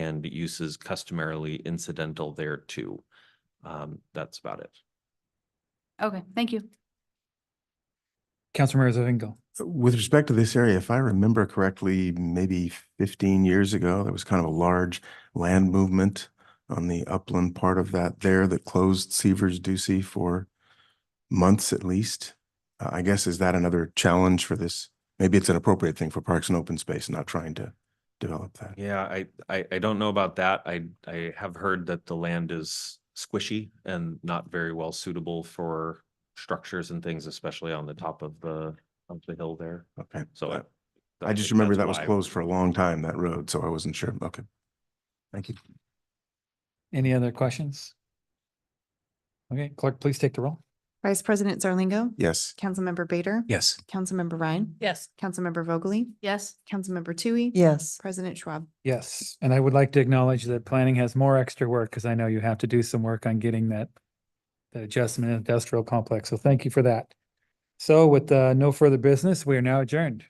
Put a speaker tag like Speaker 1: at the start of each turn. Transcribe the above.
Speaker 1: and uses customarily incidental thereto. Um, that's about it.
Speaker 2: Okay, thank you.
Speaker 3: Councilmember Zavingo.
Speaker 4: With respect to this area, if I remember correctly, maybe fifteen years ago, there was kind of a large land movement on the upland part of that there that closed Seavers Ducey for months at least. Uh, I guess is that another challenge for this? Maybe it's an appropriate thing for Parks and Open Space, not trying to develop that.
Speaker 1: Yeah, I, I, I don't know about that. I, I have heard that the land is squishy and not very well suitable for structures and things, especially on the top of the, of the hill there.
Speaker 4: Okay, Uh,
Speaker 1: So.
Speaker 4: I-
Speaker 1: I
Speaker 4: I
Speaker 1: think
Speaker 4: just remember
Speaker 1: that's
Speaker 4: that was
Speaker 1: why.
Speaker 4: closed for a long time, that road, so I wasn't sure. Okay. Thank you.
Speaker 3: Any other questions? Okay, clerk, please take the roll.
Speaker 5: Vice President Zarlingo.
Speaker 4: Yes.
Speaker 5: Councilmember Bader.
Speaker 3: Yes.
Speaker 5: Councilmember Ryan.
Speaker 6: Yes.
Speaker 5: Councilmember Vogely.
Speaker 2: Yes,
Speaker 5: Councilmember Tui.
Speaker 6: Yes.
Speaker 5: President Schwab.
Speaker 3: Yes, and I would like to acknowledge that planning has more extra work because I know you have to do some work on getting that that adjustment industrial complex. So thank you for that. So with uh, no further business, we are now adjourned.